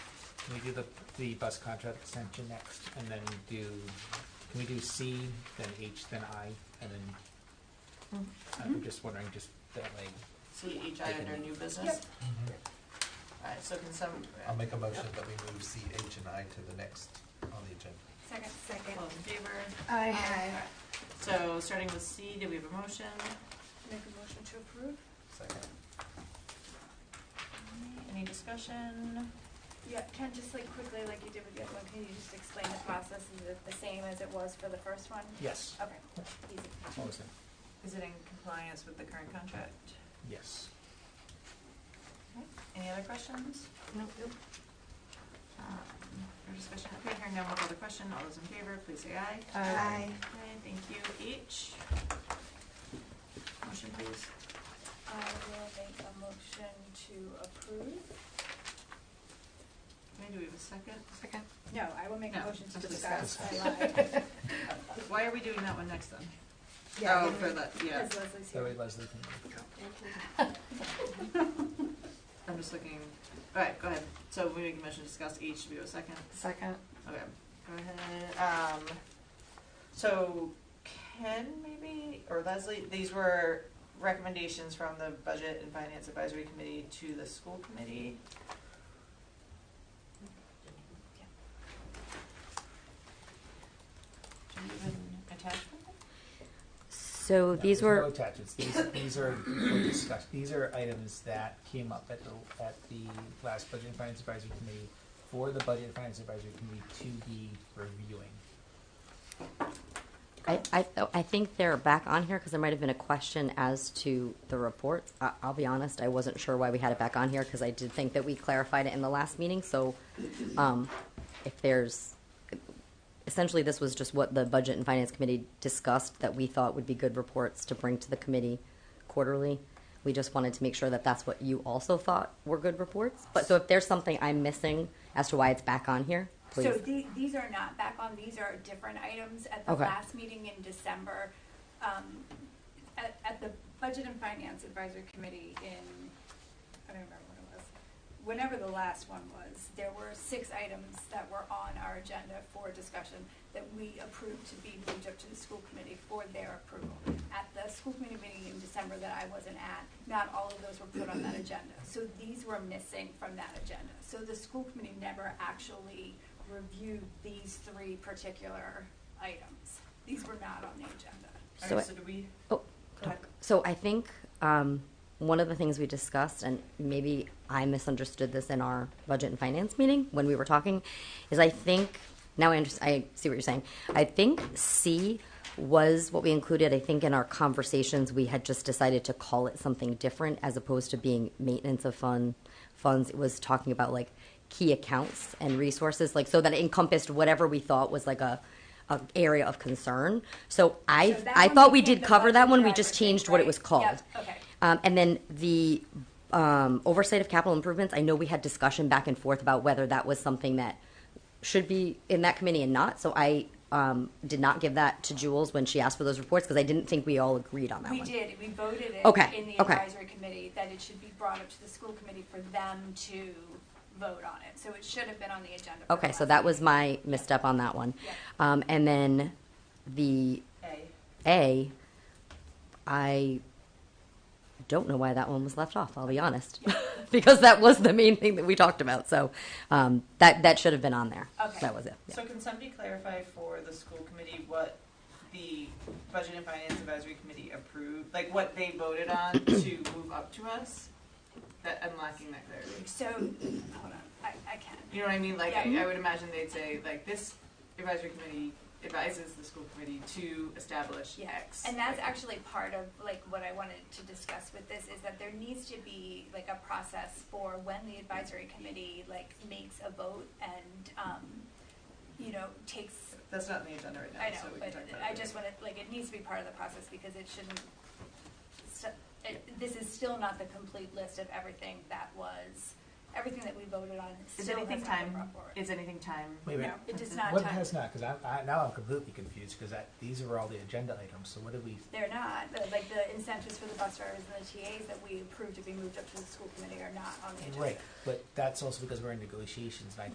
Can we do the, the bus contract extension next, and then do, can we do C, then H, then I, and then, I'm just wondering, just that way. CHI under new business? Alright, so can some, I'll make a motion that we move C, H, and I to the next on the agenda. Second. Second. all in favor? I Alright, So, starting with C, do we have a motion? Make a motion to approve? Second. Any discussion? Yeah, Ken, just like quickly, like you did with the other one, can you just explain the process? Is it the same as it was for the first one? Yes. Okay, easy. What was it? Is it in compliance with the current contract? Yes. Any other questions? Nope. No discussion, okay, hearing none, we'll call the question, all those in favor, please say aye. Aye. Okay, thank you, H. Motion please. I will make a motion to approve. Okay, do we have a second? Second. No, I will make a No, motion to to discuss. discuss. I lied. Why are we doing that one next then? Yeah, Oh, for the, yeah, Because Leslie's That way here. Leslie can. I'm just looking, alright, go ahead, so we make a motion to discuss H, do we have a second? Second. Okay, go ahead, um, so Ken maybe, or Leslie, these were recommendations from the Budget and Finance Advisory Committee to the school committee. Do you even attach them? So No, there's these No were, attachments, these, these are, for discuss, these are items that came up at the, at the last Budget and Finance Advisory Committee for the Budget and Finance Advisory Committee to be reviewing. I, I, I think they're back on here because there might have been a question as to the report. I, I'll be honest, I wasn't sure why we had it back on here because I did think that we clarified it in the last meeting. So, um, if there's, essentially, this was just what the Budget and Finance Committee discussed that we thought would be good reports to bring to the committee quarterly. We just wanted to make sure that that's what you also thought were good reports. But so if there's something I'm missing as to why it's back on here, please. So the- these are not back on, these are different items at the Okay. last meeting in December. um, At, at the Budget and Finance Advisory Committee in, I don't remember when it was, whenever the last one was, there were six items that were on our agenda for discussion that we approved to be moved up to the school committee for their approval. At the school committee meeting in December that I wasn't at, not all of those were put on that agenda. So these were missing from that agenda. So the school committee never actually reviewed these three particular items. These were not on the agenda. So Alright, it- so do we, Oh, go ahead. So I think um, one of the things we discussed, and maybe I misunderstood this in our budget and finance meeting when we were talking, is I think now I understand. I see what you're saying. I think C was what we included. I think in our conversations we had just decided to call it something different as opposed to being maintenance of fund funds. It was talking about like key accounts and resources, like so that it encompassed whatever we thought was like a. a area of concern. So I So that I one thought we became did the cover that budget one. We driver just thing, changed what it right? was called. Yep, okay. Um, and then the um, oversight of capital improvements, I know we had discussion back and forth about whether that was something that should be in that committee and not. So I um, did not give that to Jules when she asked for those reports because I didn't think we all agreed on that We one. did, we voted it Okay, in the okay. advisory committee that it should be brought up to the school committee for them to vote on it. So it should have been on the agenda. for the Okay, so last that was meeting. my misstep on that one. Yeah. Um, and then the A? A, I don't know why that one was left off. I'll be honest, because that was the main thing that we talked about. So um, that that should have been on there. Okay. That was it. Yeah. So can somebody clarify for the school committee what the Budget and Finance Advisory Committee approved, like what they voted on to move up to us? That, I'm lacking that clarity. So, hold on, I, I can. You know what I mean? Like, I, Yeah. I would imagine they'd say, like, this advisory committee advises the school committee to establish Yeah, X. And that's Like, actually part of, like, what I wanted to discuss with this, is that there needs to be, like, a process for when the advisory committee, like, makes a vote and, um, you know, takes, That's not in the agenda right now, I know, so we can but talk about it. I later. just wanted, like, it needs to be part of the process because it shouldn't, st- it- this is still not the complete list of everything that was, everything that we voted on Is still has anything not been time, brought forward. is anything time? Wait a minute. No, it does not What time- has not, because I, I, now I'm completely confused, because that, these are all the agenda items, so what did we, They're not, The- like the incentives for the bus drivers and the TAs that we approved to be moved up to the school committee are not on the agenda. right, but that's also because we're in negotiations, and I